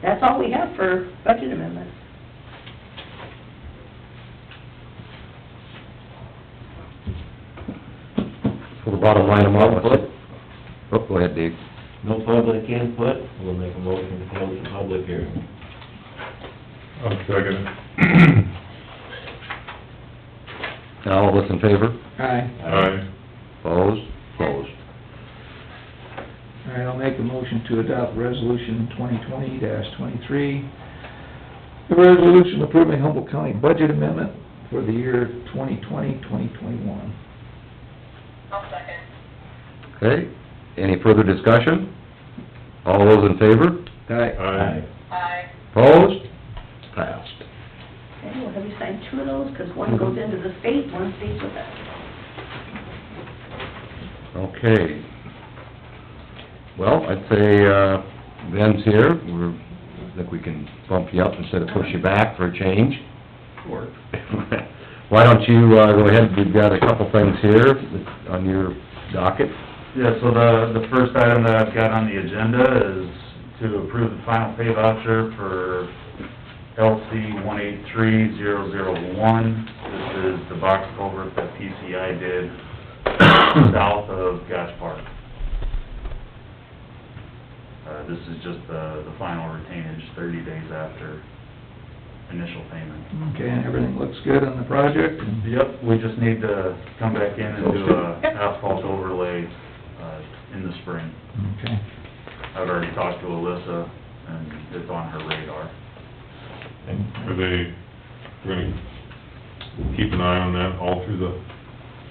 That's all we have for budget amendments. The bottom line of all of it. Oh, go ahead, Dave. No public input, we'll make a motion to close the public hearing. I'll second it. Now, all those in favor? Aye. Aye. Opposed? Opposed. All right, I'll make a motion to adopt resolution twenty twenty twenty-three. A resolution approving Humboldt County budget amendment for the year 2020-2021. I'll second. Okay, any further discussion? All those in favor? Aye. Aye. Aye. Opposed? Passed. Okay, well, have you signed two of those, because one goes into the state, one stays with us. Okay. Well, I'd say, uh, Ben's here, we're, I think we can bump you up instead of push you back for a change. Why don't you, uh, go ahead, we've got a couple things here that- on your docket. Yeah, so the, the first item that I've got on the agenda is to approve the final pay voucher for LC one eight three zero zero one. This is the box culvert that PCI did south of Gosh Park. Uh, this is just the, the final retainage thirty days after initial payment. Okay, and everything looks good on the project? Yep, we just need to come back in and do a asphalt overlay, uh, in the spring. Okay. I've already talked to Alyssa, and it's on her radar. Are they, we're gonna keep an eye on that all through the,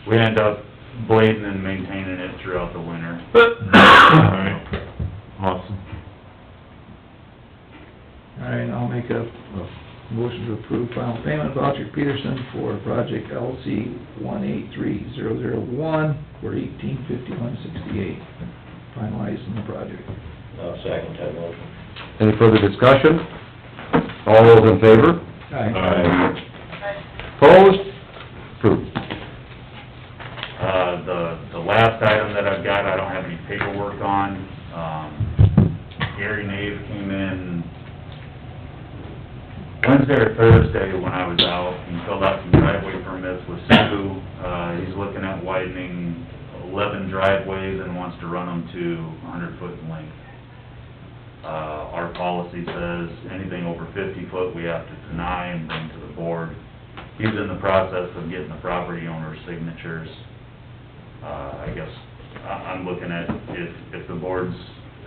We end up blading and maintaining it throughout the winter. alright, awesome. All right, I'll make a, a motion to approve final payment voucher Peterson for project LC one eight three zero zero one for eighteen fifty-one sixty-eight, finalizing the project. I'll second that motion. Any further discussion? All those in favor? Aye. Aye. Opposed? Approved. Uh, the, the last item that I've got, I don't have any paperwork on. Um, Gary Nave came in Wednesday or Thursday when I was out and filled out some driveway permits with Sue. Uh, he's looking at widening eleven driveways and wants to run them to hundred foot in length. Uh, our policy says anything over fifty foot, we have to deny and bring to the board. He's in the process of getting the property owner's signatures. Uh, I guess, I, I'm looking at if, if the board's,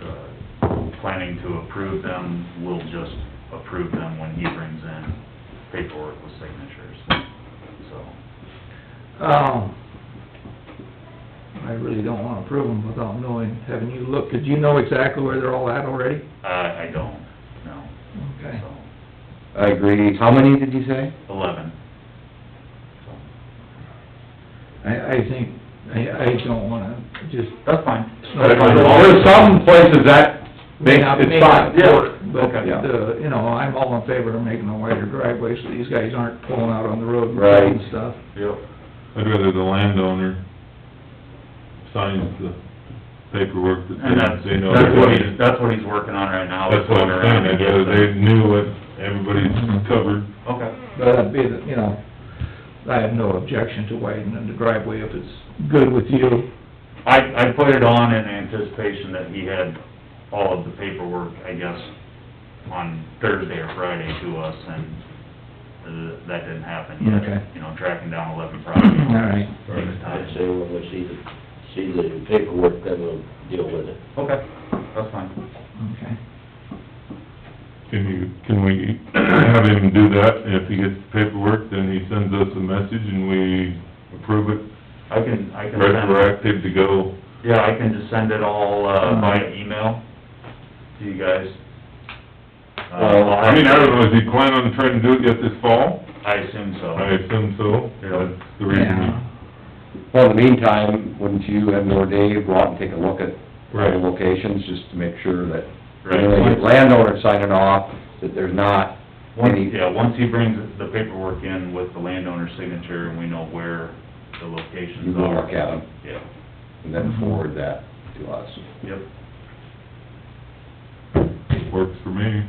uh, planning to approve them, we'll just approve them when he brings in paperwork with signatures, so. Um, I really don't wanna approve them without knowing, having you look, 'cause you know exactly where they're all at already? I, I don't, know. Okay. so, I agree. How many did you say? eleven. So, I, I think, I, I don't wanna just. That's fine. There's some places that May makes, not- may it's not fine. work, But, Okay. uh, you know, I'm all in favor of making a wider driveway, so these guys aren't pulling out on the road and Right. doing stuff. Yep. I'd rather the landowner signs the paperwork And that that's, they, they know. that's what he's, that's what he's working on right now. That's what I'm saying, I'd rather they knew what everybody's covered. Okay. But I'd be, the- you know, I have no objection to widening the driveway if it's good with you. I, I put it on in anticipation that he had all of the paperwork, I guess, on Thursday or Friday to us, and uh, that didn't happen Okay. yet. You know, tracking down eleven All properties. right. takes I'd time. say when we see the, see the paperwork, then we'll deal with it. Okay, that's fine. Okay. Can you, can we have him do that, and if he gets the paperwork, then he sends us a message and we approve it, I can, I can send, retroactive to go, yeah, I can just send it all, uh, via email to you guys. Uh, I'll have- I mean, I don't know, is he planning on trying to do it yet this fall? I assume so. I assume so, Yeah. that's the reason Well, in the meantime, wouldn't you and or Dave go out and take a look at Right. the locations, just to make sure that, Right. when the landowner signing off, that there's not Once, any... yeah, once he brings the paperwork in with the landowner's signature and we know where the You locations go are. look at them, Yeah, and then forward that to us. yep. we, works for me.